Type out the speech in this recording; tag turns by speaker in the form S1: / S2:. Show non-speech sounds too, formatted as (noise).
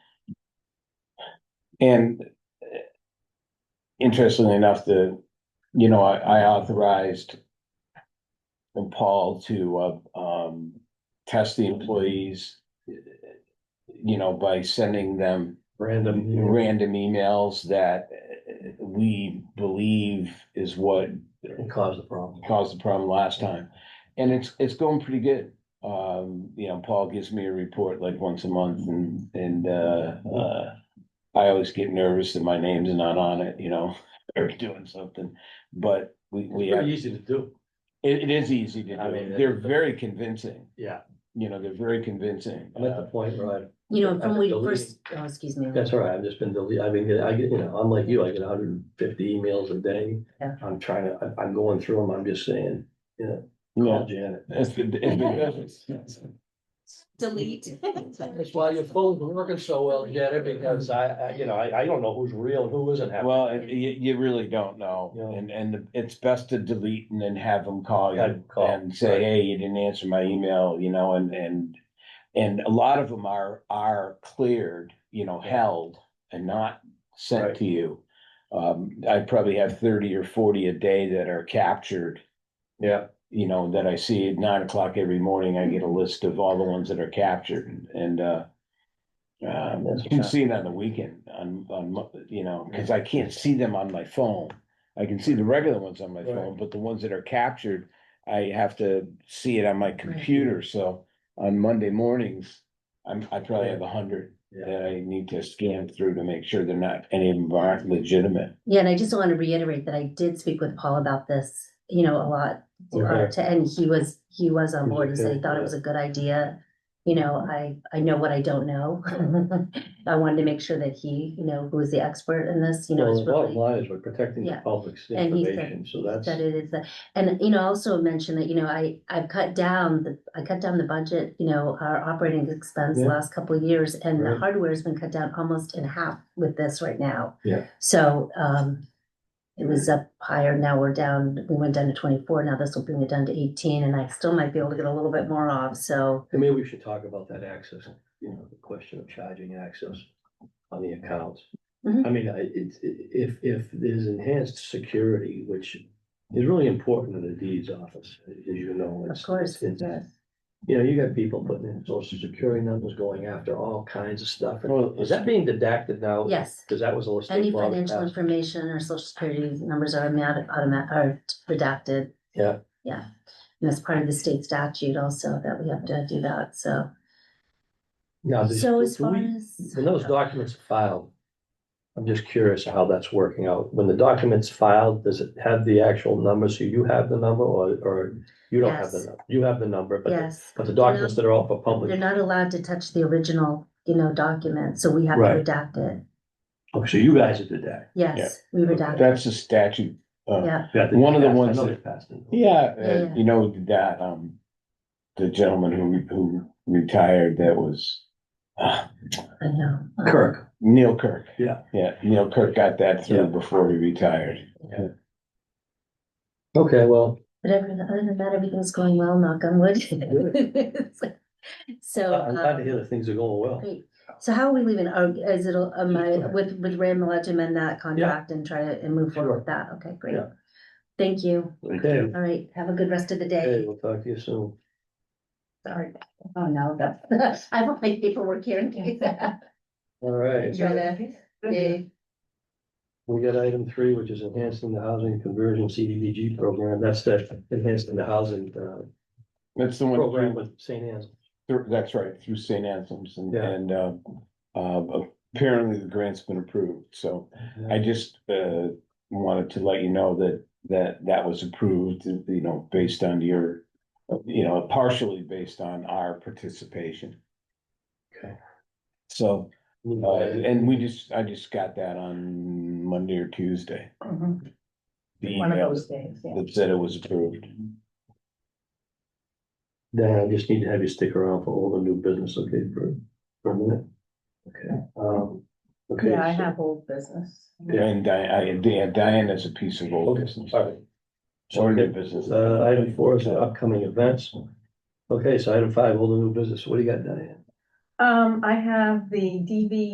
S1: And eh, interestingly enough, the, you know, I, I authorized Paul to, uh, um, test the employees, eh, you know, by sending them
S2: Random.
S1: random emails that eh, we believe is what
S2: It caused the problem.
S1: caused the problem last time. And it's, it's going pretty good. Um, you know, Paul gives me a report like once a month and, and, uh, uh, I always get nervous that my name's not on it, you know, (laughs) or doing something, but we, we,
S2: Pretty
S1: have-
S2: easy to do.
S1: it, it is easy to
S2: I mean,
S1: do. They're very convincing,
S2: Yeah,
S1: you know, they're very convincing.
S2: I'm at the point where I,
S3: You know,
S2: I'm
S3: from when you
S2: deleting.
S3: first, oh, excuse me.
S2: that's all right, I've just been deleting, I mean, I get, you know, I'm like you, I get hundred and fifty emails a day.
S3: Yeah.
S2: I'm trying to, I'm, I'm going through them, I'm just saying,
S1: Uh, Yeah,
S2: call Janet.
S1: it's been, it's been
S2: (laughs)
S1: good.
S3: (laughs) Delete.
S2: That's why your phone's working so well, Janet, because I, I, you know, I, I don't know who's real and who isn't having.
S1: Well, it- you, you really don't know.
S2: Yeah.
S1: And, and it's best to delete and then have them call
S2: Have
S1: you
S2: 'em call,
S1: and say,
S2: right.
S1: hey, you didn't answer my email, you know, and, and. And a lot of them are, are cleared, you know, held and not sent
S2: Right.
S1: to you. Um, I probably have thirty or forty a day that are captured,
S2: Yeah.
S1: you know, that I see at nine o'clock every morning. I get a list of all the ones that are captured and, uh. Um,
S2: That's
S1: you can
S2: not-
S1: see it on the weekend, on, on, mo- you know, cause I can't see them on my phone. I can see the regular ones on my
S2: Right.
S1: phone, but the ones that are captured, I have to see it on my computer, so on Monday mornings. I'm, I probably have a hundred
S2: Yeah,
S1: that I need to scan through to make sure they're not, any of them aren't legitimate.
S3: Yeah, and I just want to reiterate that I did speak with Paul about this, you know, a lot. uh,
S2: Okay.
S3: To, and he was, he was
S2: He's
S3: on board. He said he
S2: okay,
S3: thought it
S2: yeah.
S3: was a good idea. You know, I, I know what I don't know. (laughs) I wanted to make sure that he, you know, who is the expert in this, you know,
S2: well,
S3: is
S2: the bottom
S3: really.
S2: line is we're protecting the
S3: Yeah.
S2: public's
S3: And he said
S2: information, so that's.
S3: That it is that, and you know, I also mentioned that, you know, I, I've cut down the, I cut down the budget, you know, our operating expense
S2: Yeah.
S3: last couple of years. And the
S2: Right.
S3: hardware's been cut down almost in half with this right now.
S2: Yeah.
S3: So, um, it was up higher, now we're down, we went down to twenty-four, now this will bring it down to eighteen, and I still might be able to get a little bit more off, so.
S2: And maybe we should talk about that access, you know, the question of charging access on the accounts.
S3: Mhm.
S2: I mean, I, it's, i- if, if there's enhanced security, which is really important in the deeds office, as you know.
S3: Of
S2: it's-
S3: course,
S2: it's-
S3: yes.
S2: You know, you got people putting in social security numbers, going after all kinds of stuff. And
S1: Well,
S2: Is that being deducted now?
S3: Yes,
S2: Because that was a
S3: any
S2: state law. that
S3: financial
S2: passed.
S3: information or social security numbers are automatic, automatic, are redacted.
S2: Yeah.
S3: Yeah, and that's part of the state statute also that we have to do that, so.
S2: Now, does-
S3: So as
S2: do we-
S3: far as.
S2: When those documents are filed, I'm just curious how that's working out. When the document's filed, does it have the actual number? So you have the number or, or you don't have the
S3: Yes.
S2: number? You have the number, but,
S3: Yes,
S2: but the documents that are all for
S3: they're
S2: public.
S3: not allowed to touch the original, you know, document, so we have to
S2: Right.
S3: redact it.
S2: Oh, so you guys did that.
S3: Yes, we redact,
S1: That's a statute. uh,
S3: yeah,
S2: Yeah, they
S1: One of the
S2: passed- I
S1: ones
S2: know
S1: that-
S2: they passed it.
S1: Yeah,
S3: Yeah,
S1: uh,
S3: yeah.
S1: you know, that, um, the gentleman who, who retired, that was, uh,
S3: I know. Um,
S2: Kirk,
S1: Neil Kirk.
S2: Yeah.
S1: Yeah, Neil Kirk got that
S2: Yeah.
S1: through before he retired.
S2: okay, well,
S3: But everything, other than that, everything's going well, knock on wood. (laughs) So.
S2: Uh, I'm glad to
S3: um,
S2: hear that things are going well.
S3: Great. So how are we leaving? Are, is it, am I, with, with Ram, I'll amend that contract and try to, and move forward with that? Okay, great.
S2: Yeah.
S3: Thank you.
S2: Okay,
S3: All right, have a good rest of the
S2: okay,
S3: day.
S2: we'll talk to you soon.
S3: Sorry. Oh, no, that's, (laughs) I want my paperwork here in case.
S2: All right,
S3: Joanna, Dave,
S2: we got item three, which is enhancing the housing conversion CDBG program. That's the enhancing the housing, uh,
S1: That's the one,
S2: program with St. Anne's.
S1: through- that's right, through St. Anselm's and,
S2: Yeah.
S1: and, uh, uh, apparently the grant's been approved, so I just, uh, wanted to let you know that, that that was approved, you know, based on your, you know, partially based on our participation.
S2: Okay.
S1: So, Uh,
S2: Uh,
S1: and we just, I just got that on Monday or Tuesday.
S3: Mhm.
S1: The
S3: one of
S1: email
S3: those days, yeah.
S1: that said it was approved.
S2: Dan, I just need to have you stick around for all the new business, okay, for, for a minute? Okay, um, okay.
S4: Yeah, I
S2: so-
S4: have old business.
S2: Yeah.
S1: And Di- I, Di- Diana's a piece of old
S2: Okay,
S1: business.
S2: all right.
S1: Or new business.
S2: Uh, item four is the upcoming events. Okay, so item five, all the new business, what do you got, Diane?
S4: Um, I have the DV